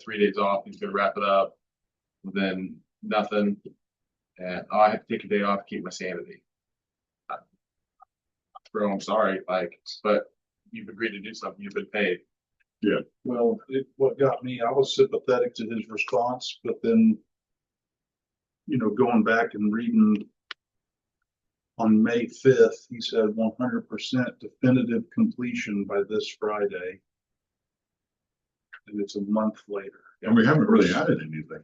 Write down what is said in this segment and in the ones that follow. three days off, he's gonna wrap it up. Then nothing. And I have to take a day off to keep my sanity. I- Bro, I'm sorry, like, but you've agreed to do something, you've been paid. Well, it, what got me, I was sympathetic to his response, but then. You know, going back and reading. On May fifth, he said one hundred percent definitive completion by this Friday. And it's a month later. And we haven't really added anything.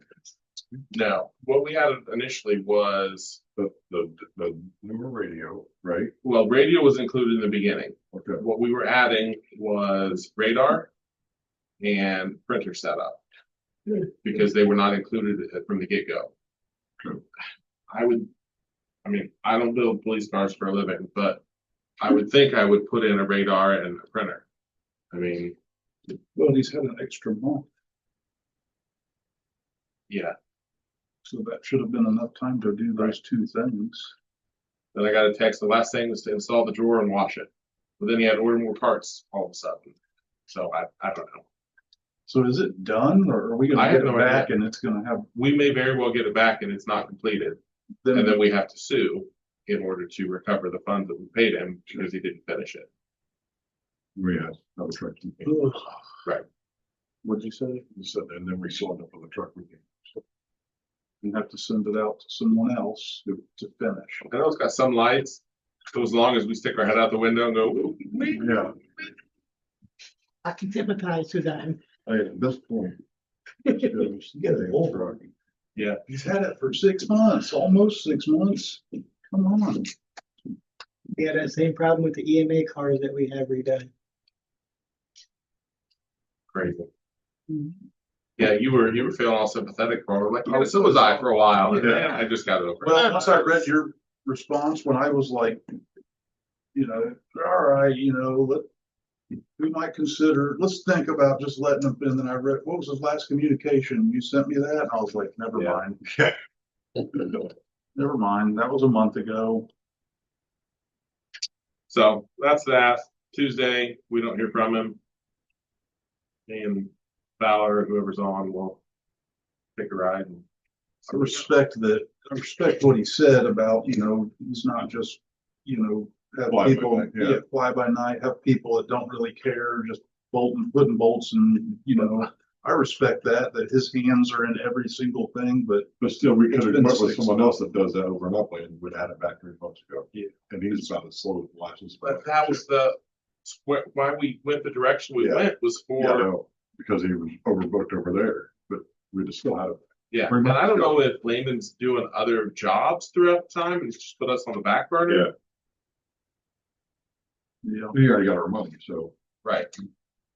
No, what we had initially was, The, the, the newer radio, right? well, radio was included in the beginning. Okay, What we were adding was radar and printer setup. Because they were not included from the get-go. True. I would, I mean, I don't build police cars for a living, but I would think I would put in a radar and a printer. I mean, Well, he's had an extra month, yeah, so that should have been enough time to do those two things. then I got a text, the last thing was to install the drawer and wash it. But then he had ordered more parts all of a sudden. So I, I don't know. So is it done or are we I gonna have get no it back idea. and it's gonna have? We may very well get it back and it's not completed. And then we have to sue in order to recover the funds that we paid him because he didn't finish it. we had, that was right. Right. What'd you say? You said, and then we signed up for the truck. we gave. You have to send it out to someone else to, to finish. I know it's got some lights, so as long as we stick our head out the window and go, "Wee." Yeah, I can sympathize with that. I, at this point. it's- Get it over. Yeah. He's had it for six months, almost six months. Come on. We had that same problem with the E EMA cars that we have redone. crazy. Mhm. Yeah, you were, you were feeling all sympathetic for, it. like, oh, so was I for a while, and then I just got over it. Well, once I read your response, when I was like, you know, all right, you know, let, we might consider, let's think about just letting him, and then I read, what was his last communication? You sent me that? And I was like, never Yeah. mind. Never mind. That was a month ago. So that's that. Tuesday, we don't hear from him. And Fowler, whoever's on, will take a ride. and- I respect that, I respect what he said about, you know, he's not just, you know, Fly have by people, night, yeah. yeah, fly by night, have people that don't really care, just bolting, putting bolts and, you know. I respect that, that his hands are in every single thing, but But still, we could It's have been went with six someone else that does that over and up and would add it back three months ago. Yeah. And he's about as slow as flashes. But that was the, wh- why we went the direction we Yeah. went was for. Yeah, I know, because he was overbooked over there, but we just still had it. Yeah, Very and much I don't so. know if Lehman's doing other jobs throughout the time and he's just put us on the back burner. Yeah. you know, We already got our money, so. Right.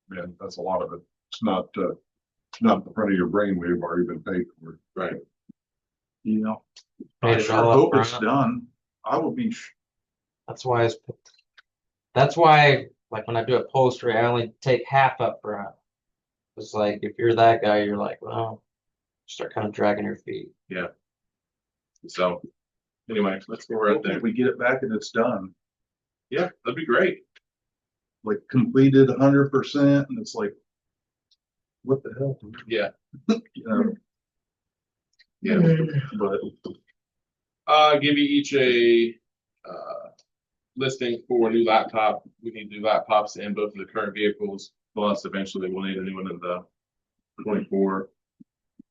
Man, that's a lot of it. It's not, uh, it's not the front of your brain. We've already been paid for. you know, Pay I it sure all up hope it's front. done. I will be, sh- That's why it's, that's why, like when I do upholstery, I only take half up front. It's like if you're that guy, you're like, well, start kind of dragging your feet. So anyway, let's go right hopefully there. we get it back and it's done, Yeah, that'd be great. like completed hundred percent and it's like. What the hell? Yeah. You know, Yeah. but Uh, give you each a uh listing for a new laptop. We need new laptops in both of the current vehicles. Plus, eventually we'll need a new one in the twenty-four.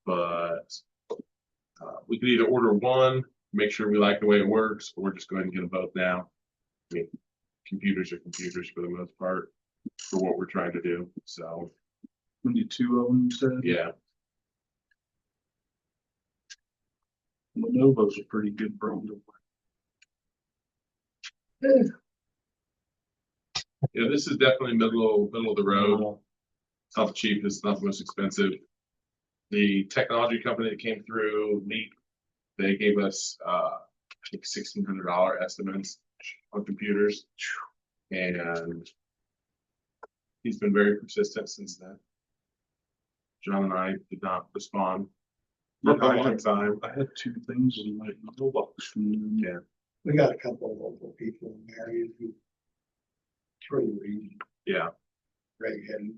But uh, we could either order one, make sure we like the way it works, or just go ahead and get them both now. I mean, computers are computers for the most part for what we're trying to do. So, we need two of them, you said? yeah, Lenovo's a pretty good brand. yeah, this is definitely middle middle of the road. It's not the cheapest, it's not the most expensive. The technology company that came through, Leap, they gave us, uh, I think sixteen hundred dollar estimates on computers. And he's been very persistent since then. John and I did not respond for a long time. I had two things in my mailbox from them. Yeah. We got a couple of local people in Marion who. Pretty reading, Yeah, redheaded.